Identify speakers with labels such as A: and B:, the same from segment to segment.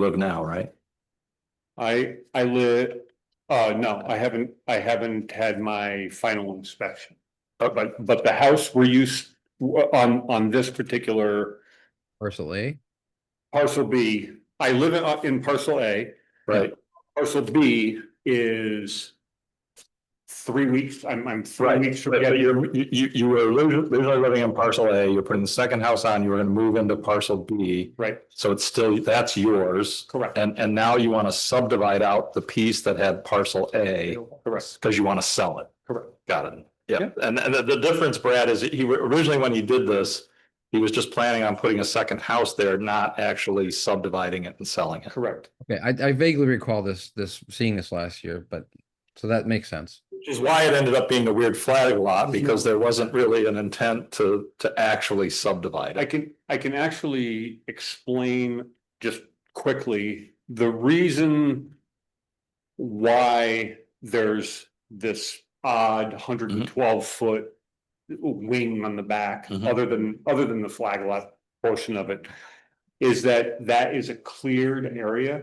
A: live now, right?
B: I, I live, uh, no, I haven't, I haven't had my final inspection. But, but, but the house we're used, on, on this particular
C: Parcel A.
B: parcel B, I live in, uh, in parcel A.
A: Right.
B: Parcel B is three weeks, I'm, I'm three weeks from
A: But but
B: getting,
A: you're, you, you- you were originally originally living in parcel A, you're putting the second house on, you were gonna move into parcel B.
B: right,
A: So it's still, that's yours.
B: correct,
A: And, and now you wanna subdivide out the piece that had parcel A,
B: correct,
A: cause you wanna sell it.
B: correct.
A: Got it. Yeah, and, and the, the difference, Brad, is he, originally when he did this, he was just planning on putting a second house there, not actually subdividing it and selling it.
B: Correct.
C: Okay, I, I vaguely recall this, this, seeing this last year, but, so that makes sense.
A: Which is why it ended up being a weird flag lot, because there wasn't really an intent to, to actually subdivide
B: I
A: it.
B: can, I can actually explain just quickly the reason why there's this odd hundred and twelve foot wing on the back,
A: Mhm.
B: other than, other than the flag lot portion of it, is that that is a cleared area,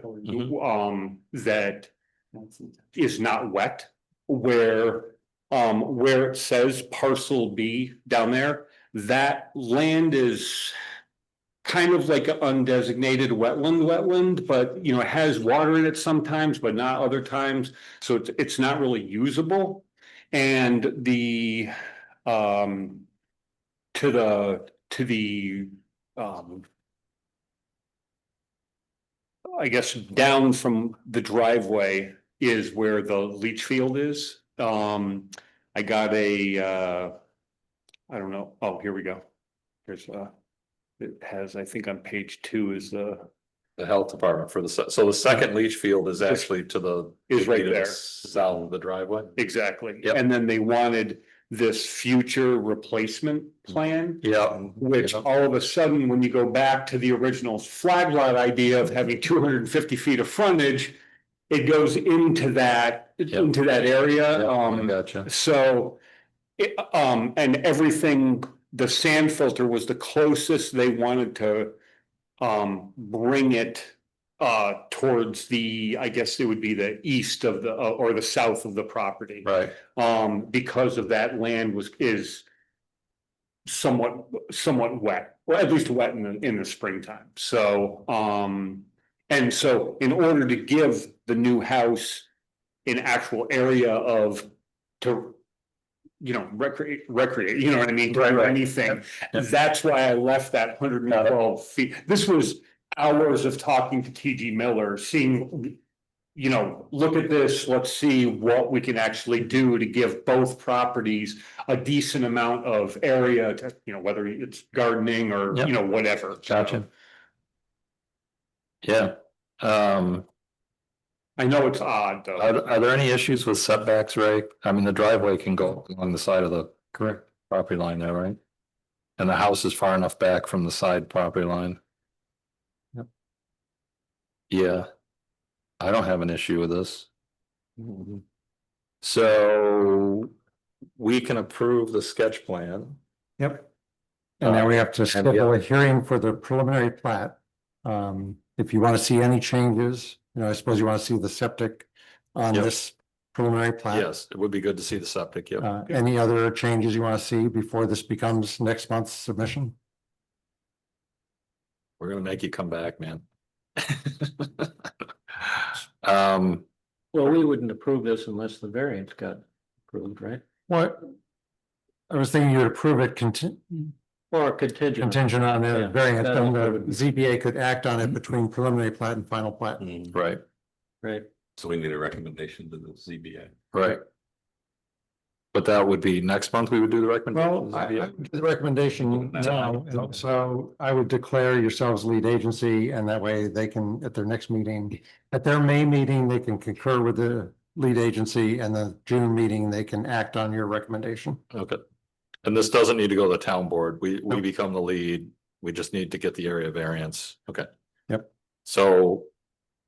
B: um, that is not wet, where, um, where it says parcel B down there, that land is kind of like an undesignated wetland, wetland, but you know, it has water in it sometimes, but not other times. So it's, it's not really usable. And the, um, to the, to the, um, I guess down from the driveway is where the leach field is. Um, I got a, uh, I don't know, oh, here we go. Here's, uh, it has, I think on page two is the,
A: The health department for the, se- so the second leach field is actually to the.
B: Is right
A: to the
B: there.
A: South of the driveway.
B: exactly.
A: Yep.
B: And then they wanted this future replacement plan.
A: Yeah.
B: Which
A: Yeah.
B: all of a sudden, when you go back to the original flag lot idea of having two hundred and fifty feet of frontage. It goes into that, into that area,
A: I
B: um,
A: Gotcha.
B: so. It, um, and everything, the sand filter was the closest they wanted to. Um, bring it, uh, towards the, I guess it would be the east of the, uh, or the south of the property
A: Right.
B: um, because of that land was, is somewhat, somewhat wet, or at least wet in the, in the springtime. So, um, and so in order to give the new house an actual area of, to, you know, recreate, recreate, you know what I mean? to do
A: Right, right.
B: Anything.
A: Yep.
B: That's why I left that hundred and twelve feet. This was hours of talking to TG Miller, seeing you know, look at this, let's see what we can actually do to give both properties a decent amount of area to, you know, whether it's gardening or,
A: Yep.
B: you know, whatever.
A: Gotcha. Yeah. Um,
B: I know it's odd, though.
A: are, are there any issues with setbacks, Ray? I mean, the driveway can go along the side of the. Correct. Property line there, right? And the house is far enough back from the side property line. Yep. Yeah. I don't have an issue with this. Mm-hmm. So we can approve the sketch plan.
D: Yep. And now we have to
A: Uh, and the-
D: schedule a hearing for the preliminary plat. Um, if you want to see any changes, you know, I suppose you want to see the septic on
A: Yep.
D: this preliminary plat.
A: Yes, it would be good to see the septic, yeah.
D: Uh, any other changes you want to see before this becomes next month's submission?
A: We're gonna make you come back, man. Um,
E: Well, we wouldn't approve this unless the variance got approved, right?
D: What? I was thinking you would approve it contingent,
E: Or contingent.
D: contingent on
E: Yeah,
D: the variance,
E: that'll
D: then the
E: approve it.
D: ZBA could act on it between preliminary plat and final plat.
A: right,
E: Right,
F: So we need a recommendation to the ZBA.
A: right. But that would be next month we would do the recommendation.
D: Well, I, I would do the recommendation
F: No.
D: now, and so I would declare yourselves lead agency, and that way they can, at their next meeting, at their May meeting, they can concur with the lead agency, and the June meeting, they can act on your recommendation.
A: Okay. And this doesn't need to go to the town board. We, we
D: Nope.
A: become the lead. We just need to get the area variance. Okay.
D: Yep.
A: So,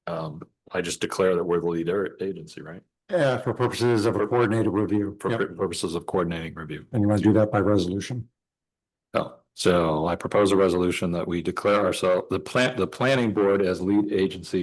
A: um, I just declare that we're the lead area- agency, right?
D: Uh, for purposes of a coordinated review,
A: For
D: Yep.
A: purposes of coordinating review.
D: and you want to do that by resolution.
A: Oh, so I propose a resolution that we declare ourselves, the plant, the planning board as lead agency